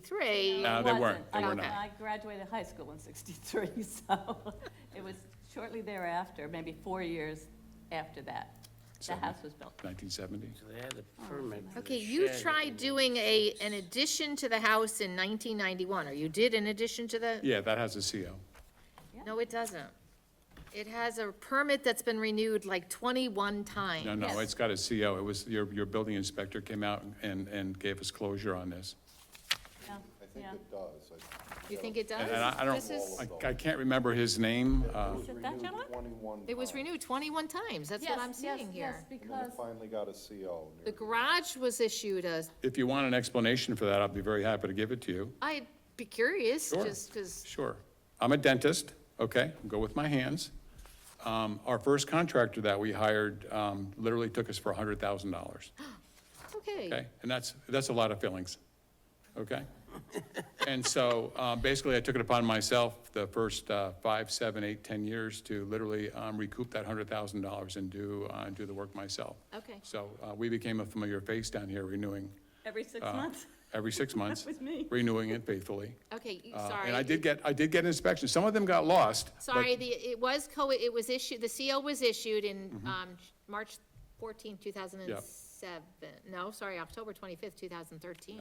63. No, Uh, they It weren't. wasn't. They were I- not. I graduated high school in 63, so it was shortly thereafter, maybe four years after that, the Seven. house was built. 1970. They had a permit for the Okay, you shed. tried doing a, an addition to the house in 1991, or you did an addition to the? Yeah, that has a CO. No, it doesn't. It has a permit that's been renewed like 21 times. No, no, Yes. it's got a CO. It was, your, your building inspector came out and, and gave us closure on this. Yeah, I think yeah. it does. I- You think it does? And I I don't, This is- I- I can't remember his name. uh, Is it that renewed gentleman? 21 It was times, renewed 21 times, that's what Yes, I'm yes, seeing here. Yes, And then because, it finally got a CO. near The the- garage was issued a, If you want an explanation for that, I'll be very happy to give it to you. I'd be curious, Sure. just because, Sure. I'm a dentist, okay? Go with my hands. Um, Our first contractor that we hired um, literally took us for $100,000, okay? okay. And that's, that's a lot of fillings, okay? And so uh, basically, I took it upon myself the first uh, five, seven, eight, 10 years to literally um, recoup that $100,000 and do, uh, do the work myself. Okay. So uh, we became a familiar face down here renewing every six uh, months, every six months, was me. renewing it faithfully. Okay, you- Uh, sorry. And I did get, I did get inspections. Some of them got lost. but- Sorry, the, it was co, it was issued, the CO was issued in, Mm-hmm. um, March 14, 2007. No, sorry, October 25th, 2013.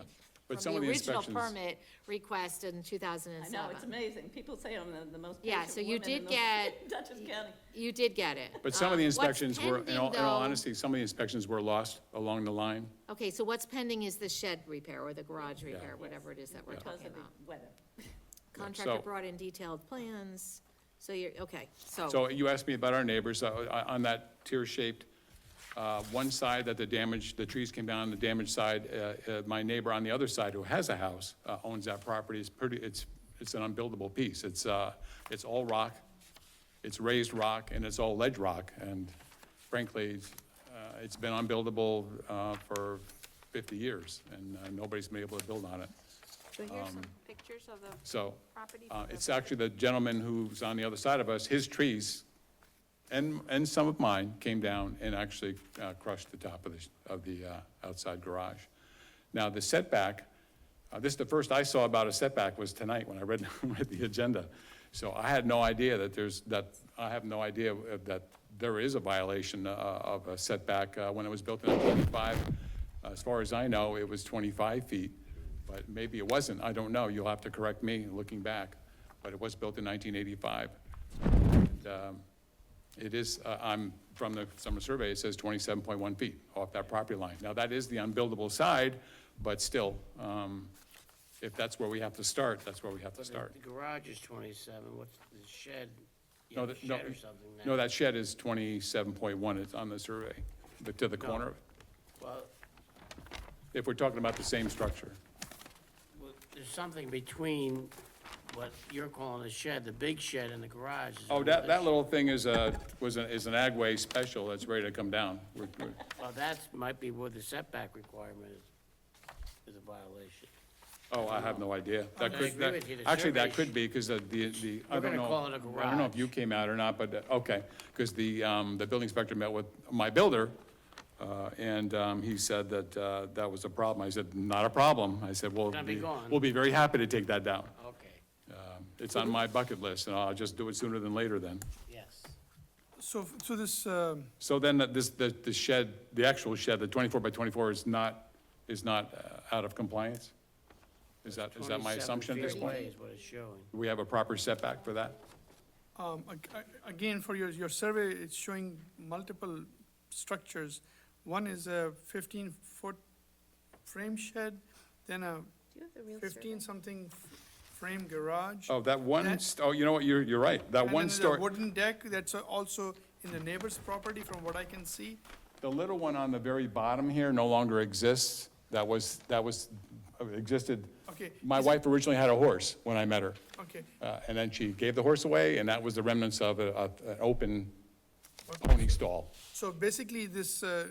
But some of the From inspections- the original permit request in I 2007. know, it's amazing. People say I'm the- the most Yeah, patient so you woman in did the- get- Dutchess County. You did get it. But some of the Um, what's inspections were, in pending, all, in all though- honesty, some of the inspections were lost along the line. Okay, so what's pending is the shed repair or the garage repair, Yes. whatever it is that we're Because talking of the about. weather. Contractor So- brought in detailed plans, so you're, okay, So you asked me about our neighbors, uh, uh, on that tear-shaped, uh, one side that the damage, the trees came down, the damaged side, uh, uh, my neighbor on the other side who has a house, uh, owns that property, it's pretty, it's, it's an unbuildable piece. It's, uh, it's all rock, it's raised rock, and it's all ledge rock, and frankly, it's, uh, it's been unbuildable, uh, for fifty years, and uh, nobody's been able to build on it. So here's some pictures of the So, Property uh, for it's actually the gentleman who's on the other side of us, his trees, and, and some of mine came down and actually uh, crushed the top of the, of the uh, outside garage. Now, the setback, uh, this is the first I saw about a setback was tonight when I read, read the agenda. So I had no idea that there's, that, I have no idea of- that there is a violation uh, of a setback. Uh, When it was built in 1995, as far as I know, it was 25 feet, but maybe it wasn't, I don't know. You'll have to correct me looking back, but it was built in 1985. And, um, it is, uh, I'm, from the summer survey, it says 27.1 feet off that property line. Now, that is the unbuildable side, but still, um, if that's where we have to start, that's where we have to But start. The garage is twenty-seven, what's the shed? You No, have a that- no, shed or something now. No, that shed is 27.1, it's on the survey, but to the corner, of it. Well, if we're talking about the same structure. well, there's something between what you're calling a shed, the big shed and the garage. is Oh, that, another that sh- little thing is a, was an, is an agway special that's ready to come down. We're- we're- Well, that's, might be where the setback requirement is, is a violation. Oh, I have no idea. That I could, agree that- with you. The actually, that survey could be, because the, the, I don't We're gonna know. call it a I don't know if garage. you came out or not, but, uh, okay, because the, um, the building inspector met with my builder, uh, and, um, he said that, uh, that was a problem. I said, not a problem. I said, well. Gonna be we- gone. We'll be very happy to take that down. Okay, Um, It's Mm-hmm. on my bucket list, and I'll just do it sooner than later then. yes. So, so this, um, So then that this, the, the shed, the actual shed, the twenty-four by twenty-four is not, is not uh, out of compliance? Is that, is that my 27 assumption at this feet point? away is what it's showing. Do we have a proper setback for that? um, ag- ag- again, for your, your survey, it's showing multiple structures. One is a fifteen-foot frame shed, then a fifteen-something frame garage. Oh, that one, That- st- oh, you know what, you're, you're right, that one And then there's a story, wooden deck that's also in the neighbor's property, from what I can see. the little one on the very bottom here no longer exists. That was, that was, uh, existed. Okay, My wife originally had a horse when I met her. Okay. Uh, and then she gave the horse away, and that was the remnants of a, of an open pony stall. So basically, this, uh,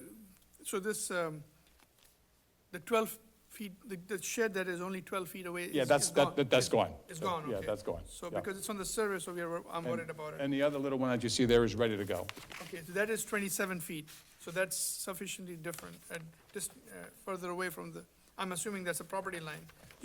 so this, um, the twelve feet, the- the shed that is only twelve feet away is Yeah, is that's, gone. that, that- that's gone. It's gone, okay. Yeah, that's gone. So yeah. because it's on the survey, so we are, I'm worried about it. And the other little one that you see there is ready to go. Okay, so that is 27 feet, so that's sufficiently different, and just uh, further away from the, I'm assuming that's a property line.